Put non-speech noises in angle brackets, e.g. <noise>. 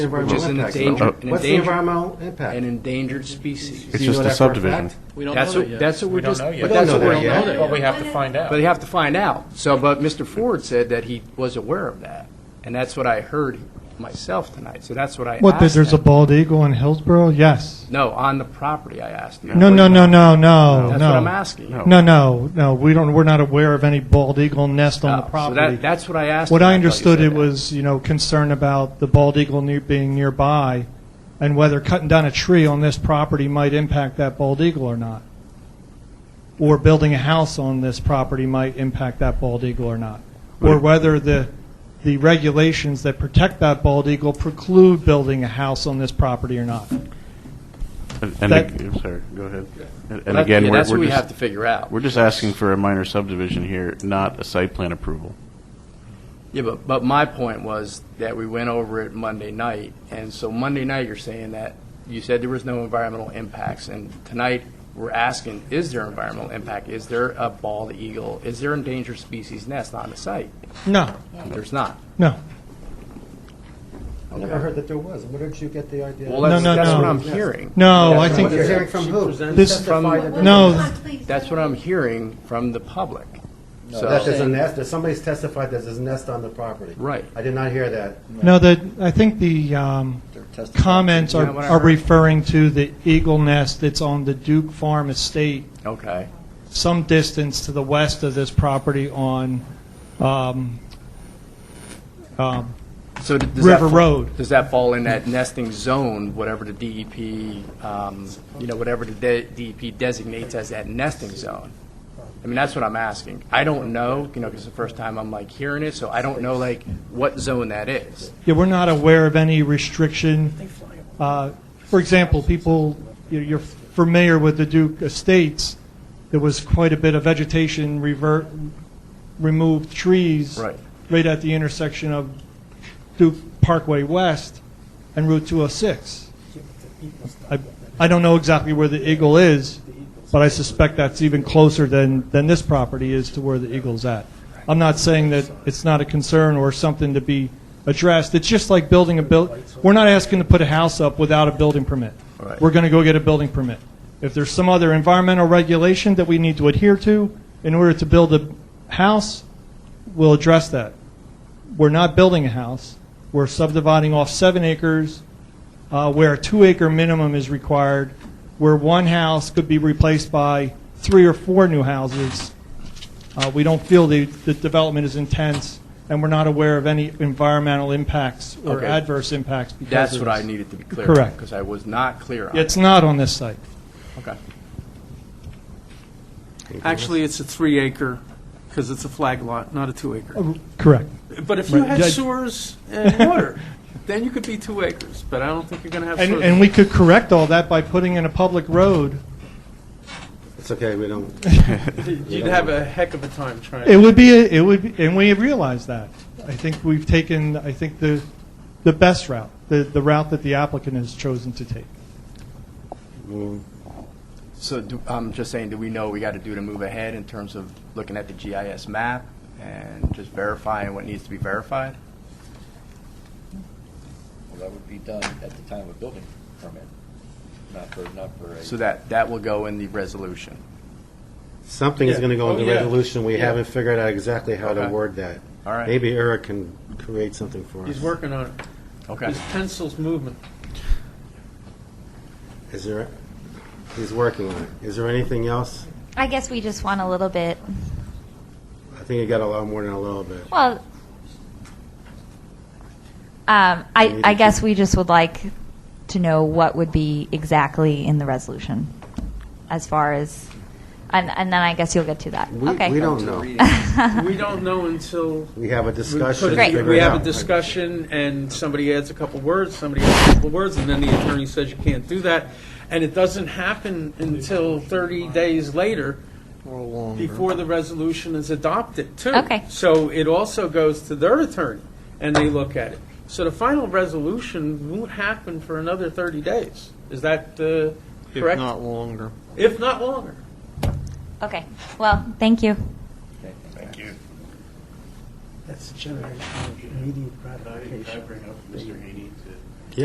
Which is an impact, though. endangered- an What's the endangered- environmental impact? an endangered species. Do It's you know just that a for subdivision. fact? We don't That's know that what, yet. that's what We we're don't just, know yet. but that's We what don't we're, know that yet. But but we have to find out. they have to find out. So, but Mr. Ford said that he was aware of that, and that's what I heard myself tonight, so that's what I asked What, that there's a him. bald eagle in Hillsborough? Yes. No, on the property, I asked him. No, no, no, no, no, no. That's what I'm asking. No. No, no, no, we don't, we're not aware of any bald eagle nest on Oh, the So property. that, that's what I asked What him. I thought you understood, said it that. was, you know, concern about the bald eagle near, being nearby, and whether cutting down a tree on this property might impact that bald eagle or not. Or building a house on this property might impact that bald eagle or not. Or Right. whether the, the regulations that protect that bald eagle preclude building a house on this property or not. And- And, That- ag- I'm sorry, go ahead. And- Well, And that- again, yeah, we're, That's what we're we have to just, figure out. we're just asking for a minor subdivision here, not a site <laughs> plan approval. Yeah, but, but my point was that we went over it Monday night, and so Monday night, you're saying that, you said there was no environmental impacts, and tonight, we're asking, is there environmental impact? Is there a bald eagle? Is there endangered species nest on the site? No, There's not. no. I never heard that there was. Where did you get the idea? Well, that's, no, that's no. what I'm hearing. No, I That's think what you're hearing from who? This- Testify that- Well, No. That's what I'm hearing from the public. So- That there's a nest, that somebody's testified that there's a nest on the property. Right. I did not hear that. No, that, I think the um, comments are Yeah, what I are heard. referring to the eagle nest that's on the Duke Farm Estate, Okay. some distance to the west of this property on um, um, So d- does that River fa- Road. Does that fall in that nesting zone, whatever the DEP, um, you know, whatever the de- DEP designates as that nesting zone? I mean, that's what I'm asking. I don't know, you know, because the first time I'm like hearing it, so I don't know like what zone that is. Yeah, we're not aware of any restriction. Uh, For example, people, you- you're familiar with the Duke Estates, there was quite a bit of vegetation revert, removed trees. Right. right at the intersection of Duke Parkway West and Route 206. I I don't know exactly where the Eagle is, but I suspect that's even closer than, than this property is to where the Eagle's at. I'm not saying that it's not a concern or something to be addressed. It's just like building a buil, we're not asking to put a house up without a building permit. Right. We're going to go get a building permit. If there's some other environmental regulation that we need to adhere to in order to build a house, we'll address that. We're not building a house. We're subdividing off seven acres uh, where a two-acre minimum is required, where one house could be replaced by three or four new houses. Uh, We don't feel the, the development is intense, and we're not aware of any environmental impacts or Okay. adverse impacts because That's of what I this. needed to be clear. Correct. Because I was not clear on. It's not on this site. Okay. Actually, it's a three-acre, because it's a flag lot, not a Oh, two-acre. Correct. But if you Right. had Yeah. sewers and water, then you could be two acres, but I don't think you're going to have And, sewers. and we could correct all that by putting in a public road. It's okay, we <laughs> don't. You'd have a heck of a time trying. It would be, a- it would, be- and we realize that. I think we've taken, I think the, the best route, the, the route that the applicant has chosen to take. So do- I'm just saying, do we know what we got to do to move ahead in terms of looking at the GIS map and just verifying what needs to be verified? Well, that would be done at the time of building permit, not for, not for a. So that, that will go in the resolution. Something is Yeah. going to go in Oh, the yeah. resolution. We Yeah. haven't figured out exactly how to Okay. word that. All right. Maybe Eric can create something for us. He's working on it. Okay. His pencil's moving. Is there, he's working on it. Is there anything else? I guess we just want a little bit, I think you got a lot more than a little bit. well, um, I, I guess we just would like to know what would be exactly in the resolution as far as, and, and then I guess you'll get to that. We, Okay. we <laughs> don't know. We don't know until We have a we put discussion. it- and Great. figure we it have a out. discussion, and somebody adds a couple words, somebody adds a couple words, and then the attorney says you can't do that, and it doesn't happen until 30 days later, before the resolution is adopted, too. Okay. So it also goes to their attorney, and they look at it. So the final resolution won't happen for another 30 days. Is that uh, correct? If not longer. If not longer. Okay, well, thank you. That's a generation of immediate gratification. I bring up Mr. Haney to